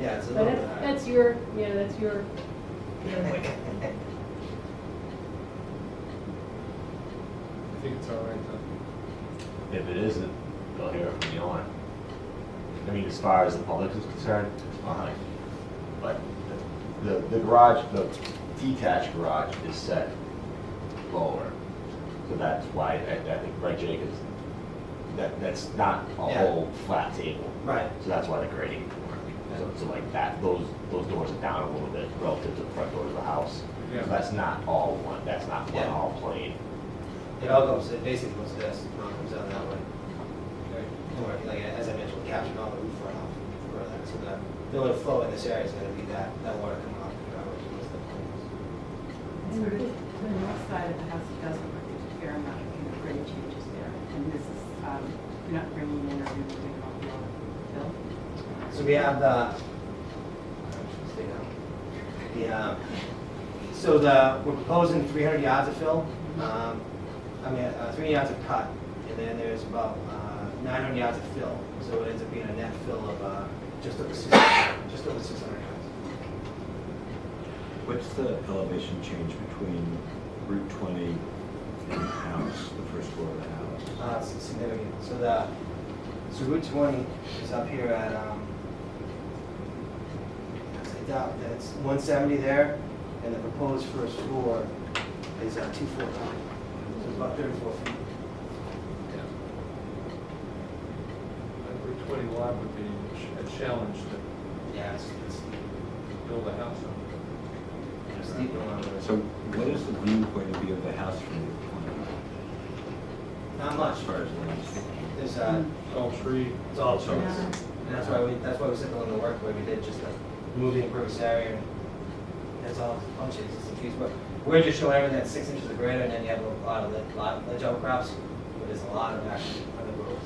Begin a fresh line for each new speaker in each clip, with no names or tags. Yeah, it's a
But
little
that's,
bit.
that's your, you know, that's your, you know,
I think it's all right then.
If it isn't, you'll hear it from the owner. I mean, as far as the public is concerned, fine. But the, the garage, the detached garage is set lower. So that's why I, I think Greg Jacobs, that, that's not a
Yeah.
whole flat table.
Right.
So that's why the grading. So, so like that, those, those doors are down a little bit relative to the front doors of the house.
Yeah.
So that's not all one, that's not one
Yeah.
all plane.
It all goes, it basically goes to this, it all comes out that way.
Okay.
Or, like, as I mentioned, captured all the roof runoff further, so the, the only flow in this area is gonna be that, that water coming off the ground, which is the
And the the north side of the house doesn't look a fair amount of you know, grade changes there. And this is, um, you're not bringing in or removing all the old fill.
So we have the, I'm just thinking now. the, um, so the, we're proposing three hundred yards of fill, um, I mean, uh, three yards of cut, and then there's about, uh, nine hundred yards of fill, so it ends up being a net fill of, uh, just over six, just over six hundred yards.
What's the elevation change between Route 20 and the house, the first floor of the house?
Uh, it's significant, so the, so Route twenty is up here at, um, it's about- that's one seventy there, and the proposed first floor is, uh, two four nine, so it's about thirty-four feet.
That Route twenty lot would be a challenge to
Yeah, it's, it's
build a house on.
steep and long.
So what is the view going to be of the house from Route 20?
Not much,
As far as landscape?
there's, uh,
It's all tree.
it's all trees.
Yeah.
And that's why we, that's why we set the limit of work where we did just like remove the impervious area. and That's all, bunches, it's a trees, but we're just showing everything that's six inches of grade and then you have a lot of, lit- lot, ledge outcrops, but there's a lot of action on the road.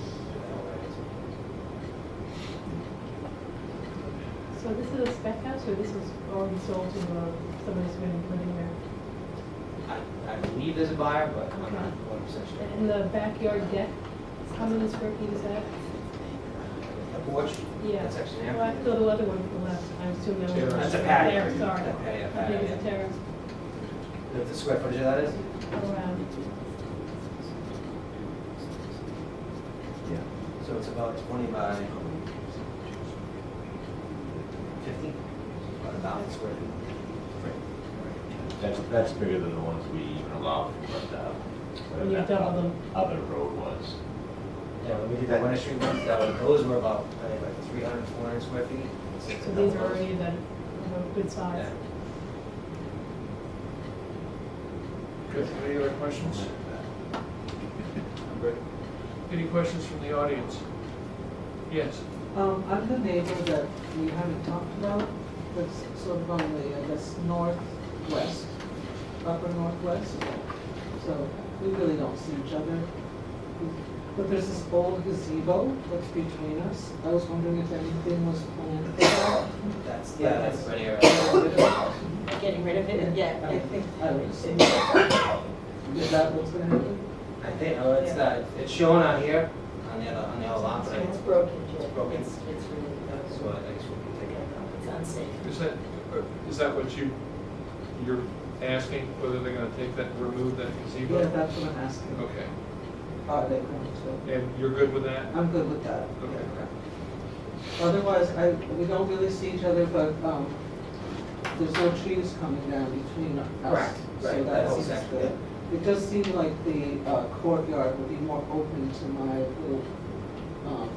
so this is a spec house, or this was already sold to, uh, somebody's been living there?
I, I believe there's a buyer, but I'm not
Okay.
one percent sure.
And the backyard deck, how many square feet is that?
A porch?
Yeah.
That's actually
Well, I
empty.
saw the other one from last time, I assume that was.
Terrace. That's
a patio.
There, sorry.
That patio,
I think it's a
patio,
terrace
The- The square footage of that is?
around.
Yeah.
So it's about twenty by fifty, about a thousand square feet.
That's, that's bigger than the ones we even allowed, but, uh,
When you
that
double them.
Other road was.
Yeah, when we did that Winter Street ones, that was, those were about, I think, like three hundred, four hundred square feet.
So these are already the, the good size.
Yeah.
Good, any other questions? Any questions from the audience? Yes,
Um, I'm the neighbor that we haven't talked about, that's sort of on the, I guess, northwest, upper northwest. So we really don't see each other. But there's this old gazebo that's between us. I was wondering if anything was planned for that.
That's, yeah, that's right here.
Getting rid of it, yeah.
I
it-
think I would say, is that what's gonna happen?
I think, oh, it's, uh, it's shown on here, on the other, on the other lot, so,
It's broken, Joe.
It's broken.
It's it's really broken.
so uh, I guess we can take it out.
It's unsafe.
is that, is that what you, you're asking, whether they're gonna take that, remove that
Yeah,
gazebo?
that's what I'm asking.
Okay,
Are they going to?
and you're good with that?
I'm good with that.
Okay.
Otherwise, I, we don't really see each other, but, um, there's no trees coming down between us.
Correct,
So
right, that
that
whole
seems
section,
good. It does seem like the uh, courtyard would be more open to my little, um,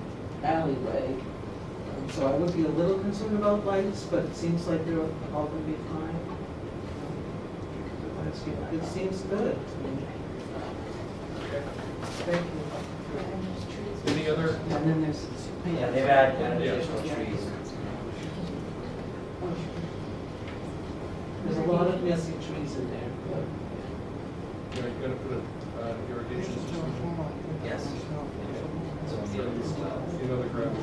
alleyway. Um, So I would be a little concerned about lights, but it seems like they're all gonna be fine. Um, It seems good to me.
Okay.
Thank you.
Any other,
And then there's.
Yeah, they've added added
Yeah.
additional trees.
There's a lot of messy trees in there, but.
you're gonna put a uh, irrigation system,
Yes. So we need it as well.
you know, the gravel.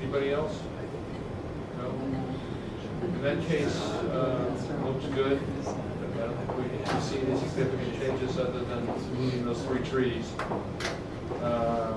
Anybody else? No? In that case, uh, looks good. I don't think we see any significant changes other than moving those three trees. Uh,